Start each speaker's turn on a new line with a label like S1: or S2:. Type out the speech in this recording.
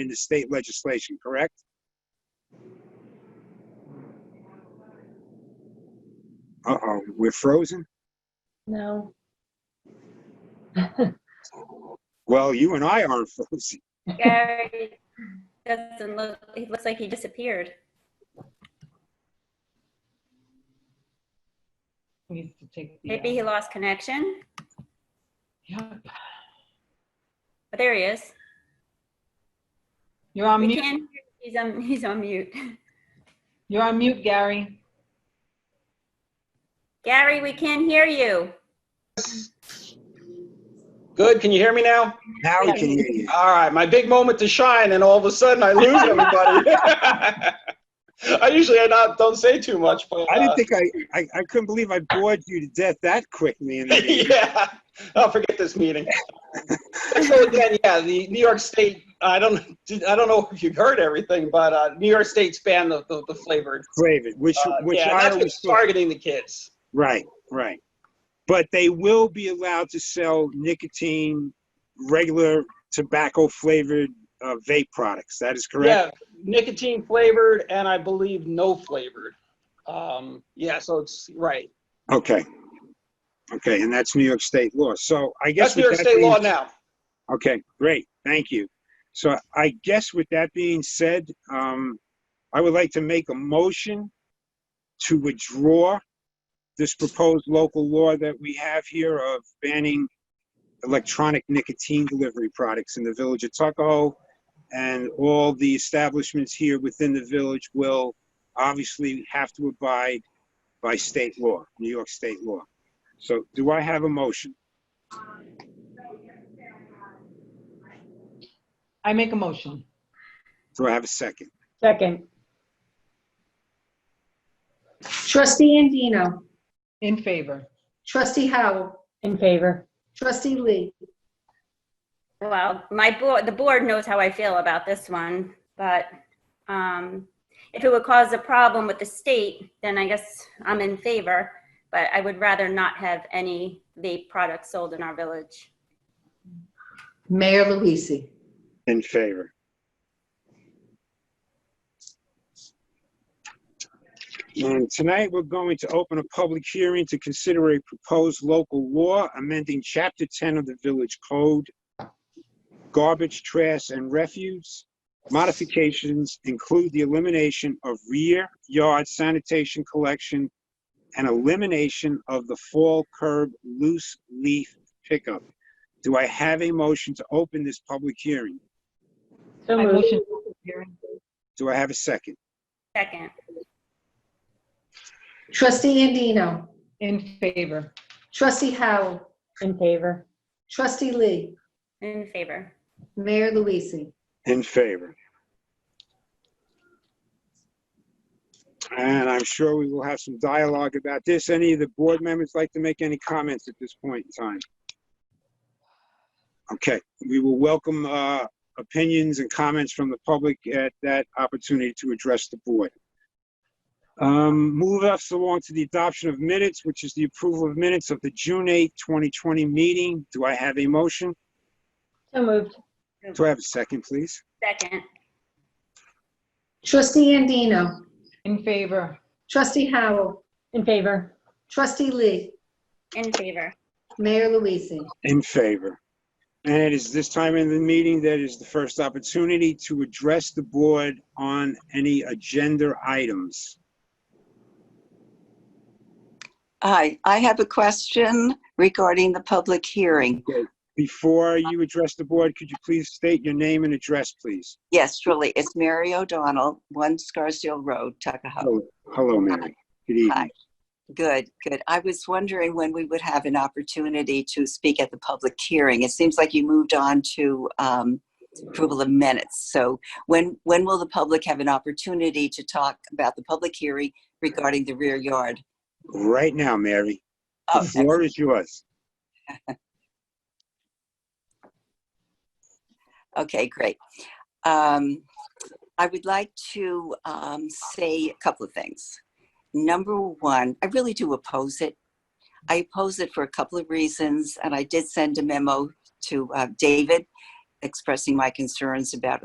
S1: in the state legislation, correct? Uh-oh, we're frozen?
S2: No.
S1: Well, you and I aren't frozen.
S3: Gary doesn't look, he looks like he disappeared.
S4: We need to take the. uh,
S3: Maybe he lost connection,
S4: Yep.
S3: but there he is.
S4: You're on
S3: We
S4: mute,
S3: can, he's on, he's on mute.
S4: you're on mute, Gary.
S3: Gary, we can't hear you.
S5: Good, can you hear me now?
S1: Now we can hear you.
S5: All right, my big moment to shine, and all of a sudden I lose everybody. I usually I not don't say too much, but
S1: I didn't
S5: uh,
S1: think I, I, I couldn't believe I bored you to death that quickly in the meeting.
S5: yeah, I'll forget this meeting. so again, yeah, the New York State. I don't I don't know if you've heard everything, but uh, New York State's banned the the, the flavored.
S1: David, which,
S5: Uh,
S1: which
S5: yeah,
S1: I
S5: that's
S1: always
S5: what's
S1: thought.
S5: targeting the kids.
S1: Right, right. But they will be allowed to sell nicotine, regular tobacco flavored uh, vape products. That is correct.
S5: Yeah, nicotine flavored, and I believe no flavored. Um, yeah, so it's right.
S1: Okay. Okay, and that's New York State law. So I guess
S5: That's New
S1: with
S5: York
S1: that
S5: State law
S1: being-
S5: now.
S1: Okay, great. Thank you. So I guess with that being said, um, I would like to make a motion to withdraw this proposed local law that we have here of banning electronic nicotine delivery products in the village of Tuckahoe. And all the establishments here within the village will obviously have to abide by state law, New York state law. So do I have a motion?
S4: I make a motion.
S1: Do I have a second?
S2: Second.
S6: Trustee Andino.
S4: In favor.
S6: Trustee Howell.
S2: In favor.
S6: Trustee Lee.
S3: Well, my board, the board knows how I feel about this one, but um, if it would cause a problem with the state, then I guess I'm in favor. But I would rather not have any vape products sold in our village.
S6: Mayor Luise.
S1: In favor. And tonight, we're going to open a public hearing to consider a proposed local law amending Chapter 10 of the Village Code, garbage, trash, and refuse. Modifications include the elimination of rear yard sanitation collection and elimination of the fall curb loose leaf pickup. Do I have a motion to open this public hearing?
S2: So
S4: I
S2: moved.
S4: motion. Gary.
S1: Do I have a second?
S3: Second,
S6: Trustee Andino.
S4: In favor.
S6: Trustee Howell.
S2: In favor.
S6: Trustee Lee.
S3: in favor.
S6: Mayor Luise.
S1: In favor. And I'm sure we will have some dialogue about this. Any of the board members like to make any comments at this point in time? Okay, we will welcome uh, opinions and comments from the public at that opportunity to address the board. Um, Move us along to the adoption of minutes, which is the approval of minutes of the June 8, 2020 meeting. Do I have a motion?
S2: So moved.
S1: Do I have a second, please?
S3: Second,
S6: Trustee Andino.
S4: In favor.
S6: Trustee Howell.
S2: In favor.
S6: Trustee Lee.
S3: in favor.
S6: Mayor Luise.
S1: In favor. And it is this time in the meeting that is the first opportunity to address the board on any agenda items.
S7: Hi, I have a question regarding the public hearing.
S1: Before you address the board, could you please state your name and address, please?
S7: Yes, really, it's Mary O'Donnell, 1 Scarsdale Road, Tuckahoe.
S1: Hello, hello, Mary. Good evening.
S7: Hi. Good, good. I was wondering when we would have an opportunity to speak at the public hearing. It seems like you moved on to um, approval of minutes. So when, when will the public have an opportunity to talk about the public hearing regarding the rear yard?
S1: Right now, Mary, the
S7: Oh,
S1: floor is yours.
S7: Okay, great. Um, I would like to um, say a couple of things. Number one, I really do oppose it. I oppose it for a couple of reasons, and I did send a memo to uh, David expressing my concerns about